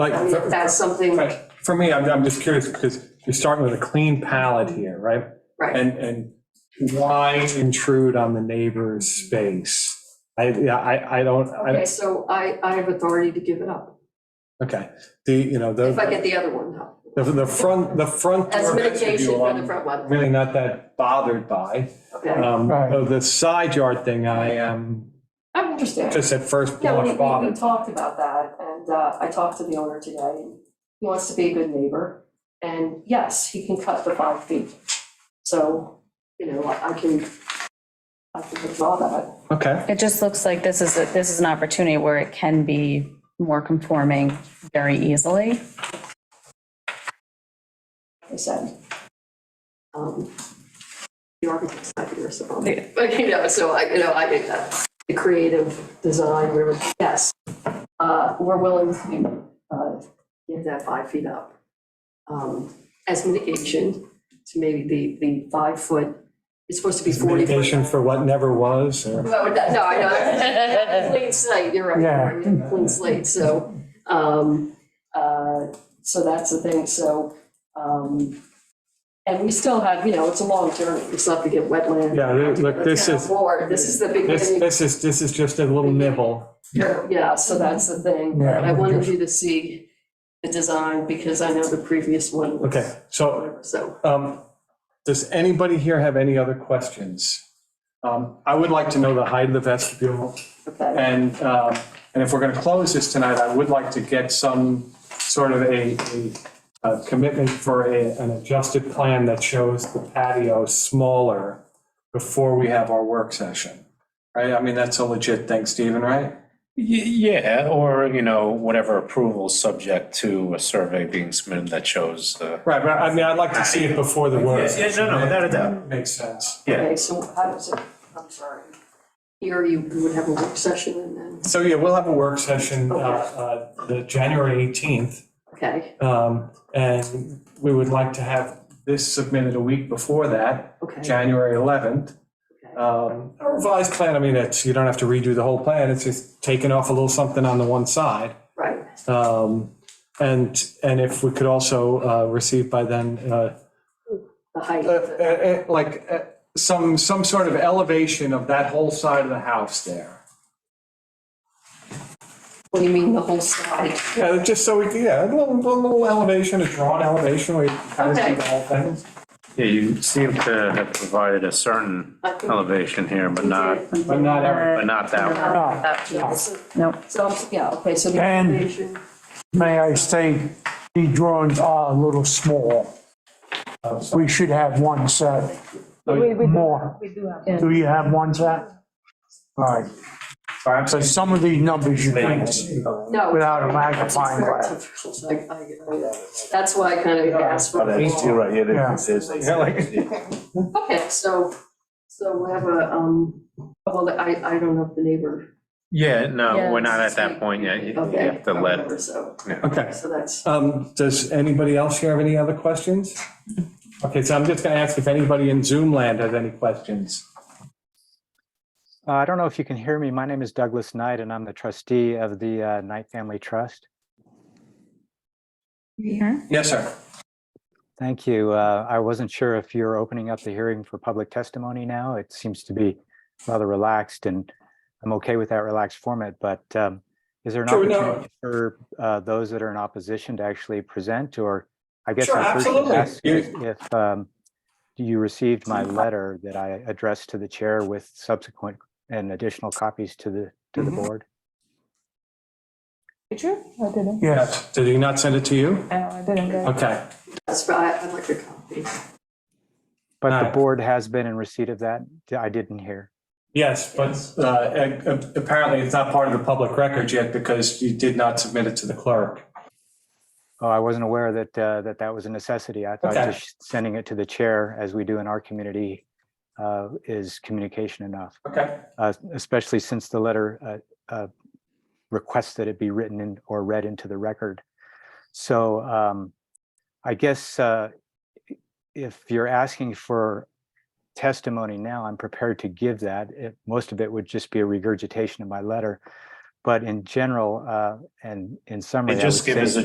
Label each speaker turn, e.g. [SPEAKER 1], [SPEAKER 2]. [SPEAKER 1] Like,
[SPEAKER 2] I mean, if
[SPEAKER 1] for-
[SPEAKER 2] Oh, that's something,
[SPEAKER 1] for- for me, I'm, I'm just curious, because you're starting with a clean palette here, right?
[SPEAKER 2] right,
[SPEAKER 1] And, and why intrude on the neighbor's space? I, yeah, I, I don't,
[SPEAKER 2] okay,
[SPEAKER 1] I,
[SPEAKER 2] so I, I have authority to give it up,
[SPEAKER 1] okay, the, you know,
[SPEAKER 2] if I
[SPEAKER 1] the,
[SPEAKER 2] get the other one up,
[SPEAKER 1] the the front, the front
[SPEAKER 2] as
[SPEAKER 1] door
[SPEAKER 2] mitigation
[SPEAKER 1] vestibule,
[SPEAKER 2] for the
[SPEAKER 1] I'm
[SPEAKER 2] front one,
[SPEAKER 1] really not that bothered by.
[SPEAKER 2] okay?
[SPEAKER 1] Um,
[SPEAKER 3] Right.
[SPEAKER 1] oh, The side yard thing, I am
[SPEAKER 2] I understand.
[SPEAKER 1] just at first
[SPEAKER 2] Yeah, we,
[SPEAKER 1] blush
[SPEAKER 2] we- we
[SPEAKER 1] bothered.
[SPEAKER 2] talked about that, and uh, I talked to the owner today, and he wants to be a good neighbor, and yes, he can cut the five feet. So, you know, I I can, I can withdraw that.
[SPEAKER 1] Okay,
[SPEAKER 4] It just looks like this is, a- this is an opportunity where it can be more conforming very easily.
[SPEAKER 2] I said. um, The architect's not here, so, I'll make- but, you know, so I, you know, I think that the creative design, we're, yes, uh, we're willing to, uh, give that five feet up. Um, as mitigation to maybe the, the five foot, it's supposed to be forty. foot.
[SPEAKER 1] mitigation for what never was, or?
[SPEAKER 2] No, that- no, I know. Clean slate, you're
[SPEAKER 3] Yeah.
[SPEAKER 2] right, You're right, clean slate, so, um, uh, so that's the thing, so, um, and we still have, you know, it's a long journey, we still have to get wetland.
[SPEAKER 1] Yeah, look, look, this
[SPEAKER 2] Town
[SPEAKER 1] is-
[SPEAKER 2] board, this is the big,
[SPEAKER 1] This,
[SPEAKER 2] thing.
[SPEAKER 1] this is, this is just a little nibble.
[SPEAKER 2] yeah, so that's the thing,
[SPEAKER 3] Yeah.
[SPEAKER 2] I wanted you to see the design, because I know the previous one was.
[SPEAKER 1] Okay, so
[SPEAKER 2] So,
[SPEAKER 1] Um, Does anybody here have any other questions? Um, I would like to know the height of the vestibule,
[SPEAKER 2] okay,
[SPEAKER 1] and, um, and if we're going to close this tonight, I would like to get some sort of a, a- a commitment for a- an adjusted plan that shows the patio smaller before we have our work session, right? I mean, that's a legit thing, Stephen, right?
[SPEAKER 5] Y- Yeah, or, you know, whatever approval, subject to a survey being submitted that shows the.
[SPEAKER 1] Right, but I mean, I'd like to see it before the work.
[SPEAKER 5] Yeah, yeah, no, no, without a doubt.
[SPEAKER 1] Makes sense.
[SPEAKER 5] Yeah.
[SPEAKER 2] okay, so how does it, I'm sorry, here you would have a work session and then,
[SPEAKER 1] So, yeah, we'll have a work session, uh, uh, the January 18th.
[SPEAKER 2] okay,
[SPEAKER 1] Um, And we would like to have this submitted a week before that,
[SPEAKER 2] okay.
[SPEAKER 1] January 11th.
[SPEAKER 2] okay.
[SPEAKER 1] Um, A revised plan, I mean, it's, you don't have to redo the whole plan, it's just taking off a little something on the one side.
[SPEAKER 2] Right,
[SPEAKER 1] Um, And, and if we could also uh, receive by then, uh,
[SPEAKER 2] the height.
[SPEAKER 1] uh, uh, uh, like, uh, some, some sort of elevation of that whole side of the house there.
[SPEAKER 2] What do you mean, the whole side?
[SPEAKER 1] Yeah, just so we, could- yeah, a little, a little elevation, a drawn elevation, we kind of see
[SPEAKER 2] Okay.
[SPEAKER 1] the whole thing.
[SPEAKER 5] Yeah, you seem to have provided a certain
[SPEAKER 2] I think-
[SPEAKER 5] elevation here, but not,
[SPEAKER 1] But not every-
[SPEAKER 5] but not that one.
[SPEAKER 3] No.
[SPEAKER 2] Yeah, So,
[SPEAKER 4] Nope.
[SPEAKER 2] so, yeah, okay, so the
[SPEAKER 3] And-
[SPEAKER 2] elevation,
[SPEAKER 3] May I say, the drawings are a little small. We should have one set, more. Do you have one set? All right,
[SPEAKER 1] Sorry, I'm
[SPEAKER 3] so
[SPEAKER 1] sorry.
[SPEAKER 3] some of these numbers you can't see
[SPEAKER 2] no.
[SPEAKER 3] without a
[SPEAKER 2] it's
[SPEAKER 3] magnifying
[SPEAKER 2] very
[SPEAKER 3] glass.
[SPEAKER 2] difficult. I- I- uh, That's why I kind of asked
[SPEAKER 5] Oh,
[SPEAKER 2] for.
[SPEAKER 6] right,
[SPEAKER 3] Yeah.
[SPEAKER 1] Yeah, like-
[SPEAKER 2] Okay, so, so we have a, um, well, I, I don't know if the neighbor.
[SPEAKER 5] Yeah, no,
[SPEAKER 4] Yeah.
[SPEAKER 5] we're not at that point yet. You you
[SPEAKER 2] Okay,
[SPEAKER 5] have to
[SPEAKER 2] or
[SPEAKER 5] let.
[SPEAKER 2] whatever, So,
[SPEAKER 1] Okay.
[SPEAKER 2] so that's,
[SPEAKER 1] Um, does anybody else here have any other questions? Okay, so I'm just gonna ask if anybody in Zoom land has any questions.
[SPEAKER 7] Uh, I don't know if you can hear me. My name is Douglas Knight, and I'm the trustee of the uh, Knight Family Trust.
[SPEAKER 1] Yes, sir.
[SPEAKER 7] Thank you. Uh, I wasn't sure if you're opening up the hearing for public testimony now. It seems to be rather relaxed, and I'm okay with that relaxed format, but um, is there an
[SPEAKER 1] Sure, no.
[SPEAKER 7] opportunity for uh, those that are in opposition to actually present, or I guess
[SPEAKER 1] Sure,
[SPEAKER 7] I first should
[SPEAKER 1] absolutely.
[SPEAKER 7] ask
[SPEAKER 1] You-
[SPEAKER 7] if if, um, you received my letter that I addressed to the chair with subsequent and additional copies to the, to the
[SPEAKER 1] Mhm.
[SPEAKER 7] board?
[SPEAKER 8] Did you? I didn't.
[SPEAKER 3] Yes.
[SPEAKER 1] Did he not send it to you?
[SPEAKER 8] No, I didn't get it.
[SPEAKER 1] Okay,
[SPEAKER 2] that's, I, I'd like a copy.
[SPEAKER 7] But the
[SPEAKER 1] Alright.
[SPEAKER 7] board has been in receipt of that. I didn't hear.
[SPEAKER 1] yes, but, uh, a- apparently it's not part of the public record yet because you did not submit it to the clerk.
[SPEAKER 7] Oh, I wasn't aware that, uh, that that was a necessity. I thought
[SPEAKER 1] Okay.
[SPEAKER 7] just sending it to the chair, as we do in our community, uh, is communication enough,
[SPEAKER 1] Okay.
[SPEAKER 7] uh, especially since the letter, uh, uh, requests that it be written in or read into the record. So, um, I guess, uh, if you're asking for testimony now, I'm prepared to give that. It- Most of it would just be a regurgitation of my letter. But in general, uh, and in summary. I
[SPEAKER 5] just
[SPEAKER 7] would
[SPEAKER 5] give
[SPEAKER 7] say-
[SPEAKER 5] us a